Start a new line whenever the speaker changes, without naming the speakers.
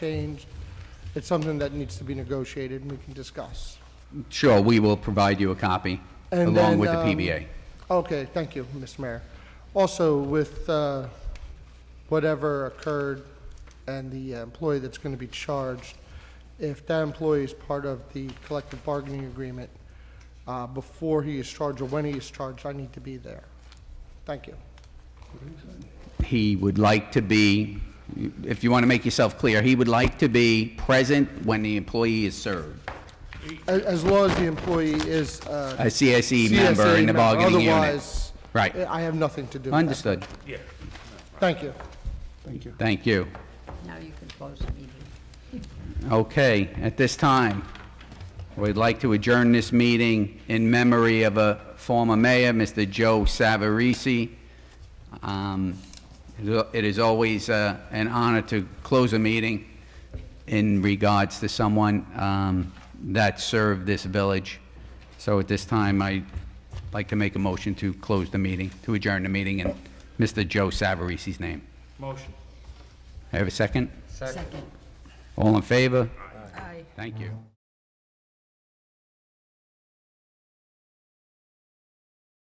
changed. It's something that needs to be negotiated and we can discuss.
Sure, we will provide you a copy
And
along
then,
with the
um,
PBA.
Okay, thank you, Mr. Mayor. Also, with uh, whatever occurred and the employee that's going to be charged, if that employee is part of the collective bargaining agreement, uh, before he is charged or when he is charged, I need to be there. Thank you.
He would like to be, if you want to make yourself clear, he would like to be present when the employee is served,
A- As long as the employee is uh,
a CSE member
CSA
in the bargaining unit.
Otherwise,
Right.
I have nothing to do with that.
Understood.
Thank you.
Thank you.
Now you can close the meeting.
Okay, at this time, we'd like to adjourn this meeting in memory of a former mayor, Mr. Joe Savarese. Um, It is always uh, an honor to close a meeting in regards to someone um, that served this village. So at this time, I'd like to make a motion to close the meeting, to adjourn the meeting in Mr. Joe Savarese's name.
Motion.
Have a second?
Second.
All in favor?
Aye.
Thank you.